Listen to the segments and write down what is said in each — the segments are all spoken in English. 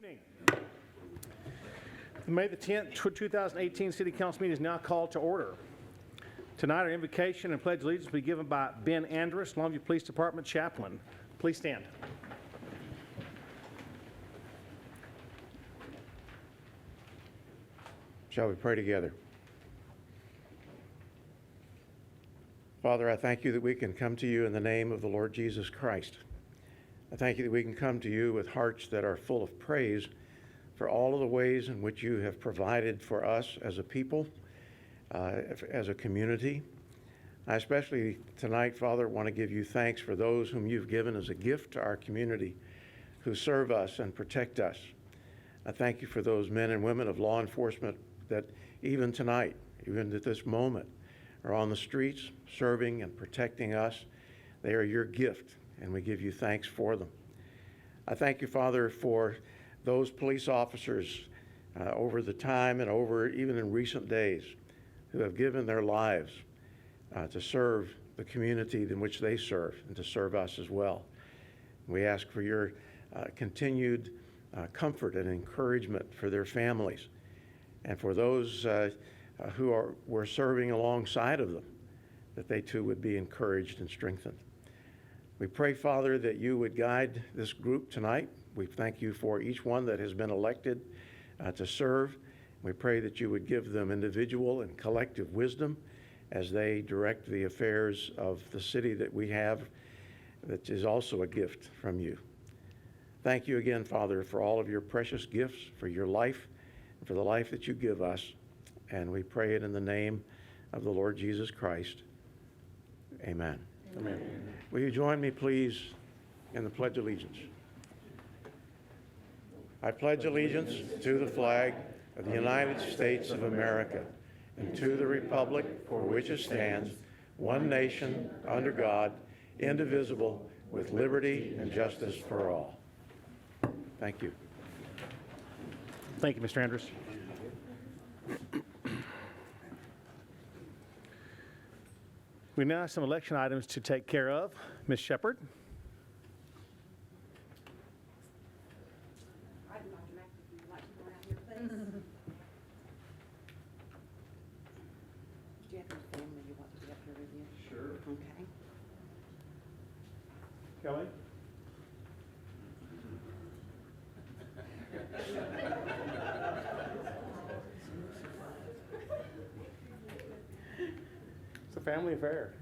evening. The May the 10th, tw- 2018 City Council meeting is now called to order. Tonight, our invocation and pledge allegiance will be given by Ben Andrus, Longview Police Department Chaplain. Please stand. Shall we pray together? Father, I thank you that we can come to you in the name of the Lord Jesus Christ. I thank you that we can come to you with hearts that are full of praise for all of the ways in which you have provided for us as a people, uh, as a community. I especially tonight, Father, want to give you thanks for those whom you've given as a gift to our community who serve us and protect us. I thank you for those men and women of law enforcement that even tonight, even at this moment, are on the streets serving and protecting us. They are your gift, and we give you thanks for them. I thank you, Father, for those police officers uh, over the time and over even in recent days who have given their lives uh, to serve the community in which they serve and to serve us as well. We ask for your uh, continued uh, comfort and encouragement for their families and for those uh, uh, who are, were serving alongside of them, that they too would be encouraged and strengthened. We pray, Father, that you would guide this group tonight. We thank you for each one that has been elected uh, to serve. We pray that you would give them individual and collective wisdom as they direct the affairs of the city that we have, that is also a gift from you. Thank you again, Father, for all of your precious gifts, for your life, and for the life that you give us. And we pray it in the name of the Lord Jesus Christ. Amen. Amen. Will you join me, please, in the Pledge of Allegiance? I pledge allegiance to the flag of the United States of America and to the republic for which it stands, one nation, under God, indivisible, with liberty and justice for all. Thank you. Thank you, Mr. Andrus. We now have some election items to take care of. Ms. Shepherd? I'd like to make, if you'd like to come out here, please. Do you have any family you want to be up here with you? Sure. Okay. Kelly? It's a family affair.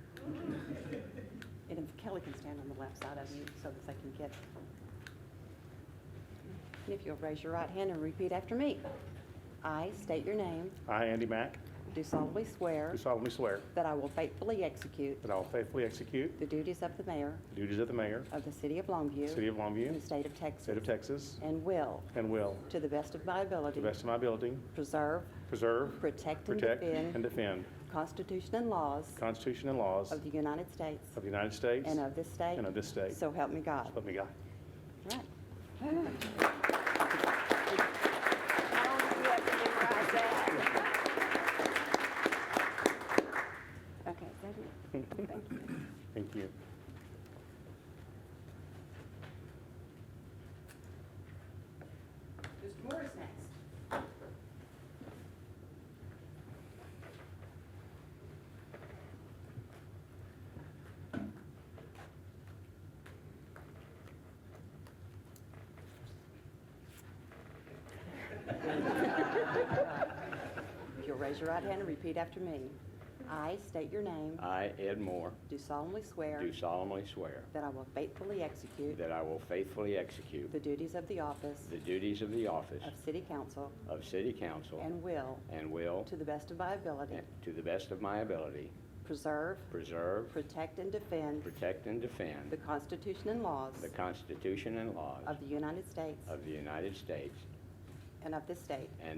And if Kelly can stand on the left side of you so that they can get. And if you'll raise your right hand and repeat after me. I state your name, I, Andy Mack, do solemnly swear do solemnly swear that I will faithfully execute that I will faithfully execute the duties of the mayor the duties of the mayor, of the city of city Longview of in Longview, the state of Texas state of Texas, and will, and will, to the best of my to ability, the best of my ability, preserve, preserve, protect, and protect, defend and defend the Constitution and laws the Constitution and laws Of of the United States. the United States And of this state. and of this state. So help me God. Help me God. Right. Not only do you have to memorize that. Okay, is that it? Thank you. Thank you. Mr. Morris next. If you'll raise your right hand and repeat after me. I state your name, I, Ed Moore, do solemnly swear do solemnly swear that I will faithfully execute that I will faithfully execute the duties of the office the duties of the office of city council of City Council and will, and will, to the best of my ability, to the best of my ability, preserve, preserve, protect, and defend protect, and defend the Constitution and laws the Constitution and laws of the United States of the United States and of this state.